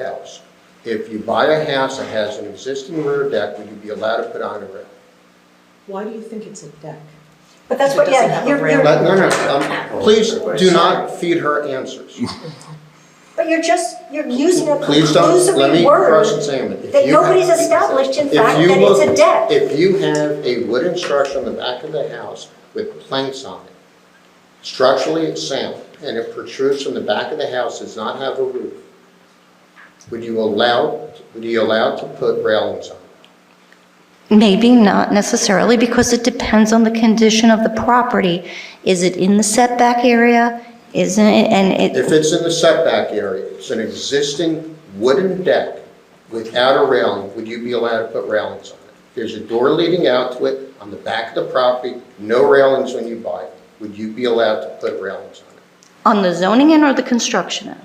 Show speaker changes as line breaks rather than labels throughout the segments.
house. If you buy a house that has an existing rear deck, would you be allowed to put on a rear?
Why do you think it's a deck?
But that's
It
what,
doesn't
yeah,
have a
you're,
ramp.
you're,
But, no, no, um, please do not feed her answers.
but you're just, you're using a
Please don't, let me
conclusory word
cross-examine. If
that
you have-
nobody's established in
If
fact
you
that it's
look-
a deck.
If you have a wooden structure on the back of the house with planks on it, structurally it's sound, and it protrudes from the back of the house, does not have a roof, would you allow, would you allow to put railings on it?
Maybe not necessarily, because it depends on the condition of the property. Is it in the setback area? Isn't it, and
If
it,
it's in the setback area, it's an existing wooden deck without a railing, would you be allowed to put railings on it? There's a door leading out to it on the back of the property, no railings when you buy it, would you be allowed to put railings on it?
on the zoning end or the construction end?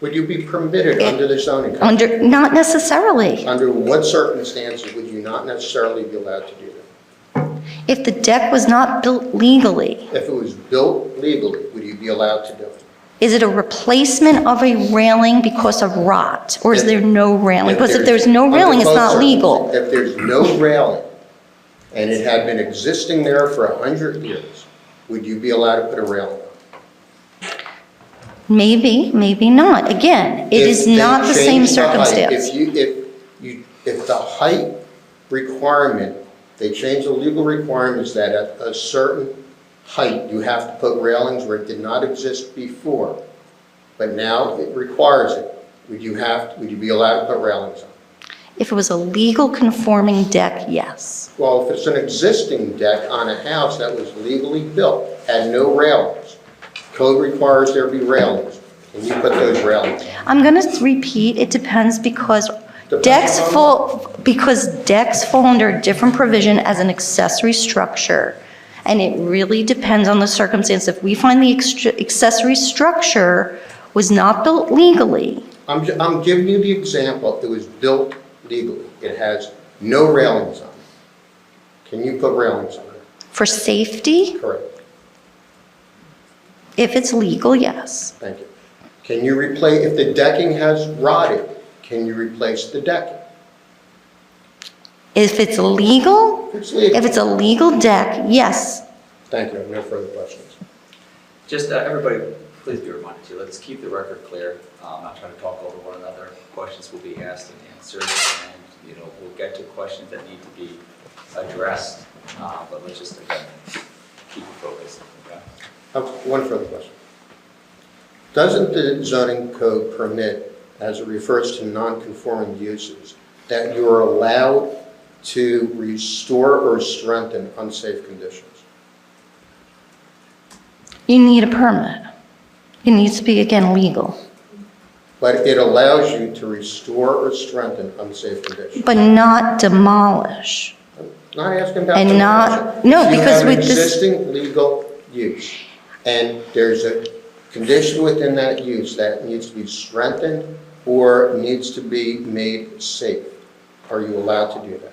Would you be permitted under the zoning code?
Under, not necessarily.
Under what circumstances would you not necessarily be allowed to do that?
If the deck was not built legally,
If it was built legally, would you be allowed to do it?
is it a replacement of a railing because of rot? Or is there no railing? Because if there's no railing, it's
Under both
not legal.
circumstances, If there's no railing, and it had been existing there for a 100 years, would you be allowed to put a railing on? it?
Maybe, maybe not. Again, it
If
is
they
not the same
change height,
circumstance.
If you, if you, if the height requirement, they change the legal requirements that at a certain height, you have to put railings where it did not exist before, but now it requires it, would you have, would you be allowed to put railings on?
If it was a legal conforming deck, yes.
Well, if it's an existing deck on a house that was legally built, had no railings, code requires there be railings, and you put those railings.
I'm going to repeat, it depends because decks
on-
fall, because decks fall under a different provision as an accessory structure. And it really depends on the circumstance. If we find the extr- accessory structure was not built legally,
I'm, ju- I'm giving you the example, it was built legally, it has no railings on it. Can you put railings on it?
for safety,
Correct,
if it's legal, yes.
thank you. Can you replace, if the decking has rotted, can you replace the decking?
If it's legal,
If it's
if
legal,
it's a legal deck, yes.
thank you, I have no further questions.
Just, uh, everybody, please be reminded to, let's keep the record clear. Uh, I'm not trying to talk over one another. Questions will be asked and answered, and, you know, we'll get to questions that need to be addressed, uh, but let's just, again, keep it focused, okay?
I have Uh, One further question. Doesn't the zoning code permit, as it refers to non-conforming uses, that you are allowed to restore or strengthen unsafe conditions?
You need a permit. It needs to be, again, legal,
But it allows you to restore or strengthen unsafe conditions.
but not demolish.
Not asking about.
And not- no,
demolition.
because with
You have an
this-
existing legal use, and there's a condition within that use that needs to be strengthened or needs to be made safe. Are you allowed to do that?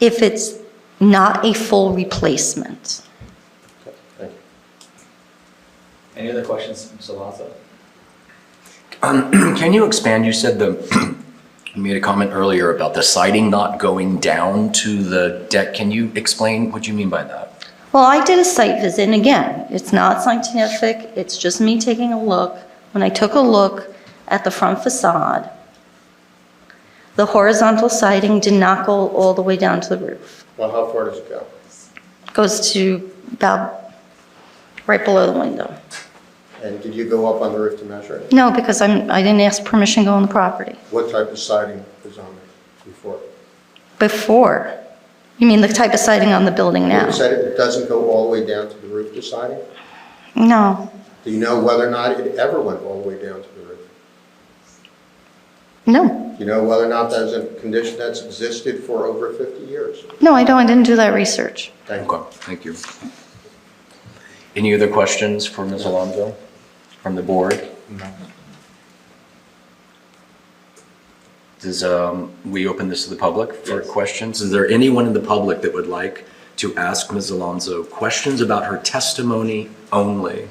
if it's not a full replacement.
Okay, Thank you.
Any other questions, Mr. Alonso?
Um, Can you expand? You said the, you made a comment earlier about the siding not going down to the deck. Can you explain what you mean by that?
Well, I did a site visit, and again, it's not scientific, it's just me taking a look. When I took a look at the front facade, the horizontal siding did not go all the way down to the roof.
Well, how far does it go?
It Goes to about right below the window.
And did you go up on the roof to measure it?
No, because I'm, I didn't ask permission to go on the property.
What type of siding was on it before?
Before, you mean the type of siding on the building now?
You said it doesn't go all the way down to the roof to siding?
No,
Do you know whether or not it ever went all the way down to the roof?
no,
Do you know whether or not that's a condition that's existed for over 50 years?
no, I don't, I didn't do that research.
Thank you.
Okay, thank you. Any other questions for Ms. Alonso from the board? Does, um, we open this to the public for
Yes.
questions? Is there anyone in the public that would like to ask Ms. Alonso questions about her testimony only?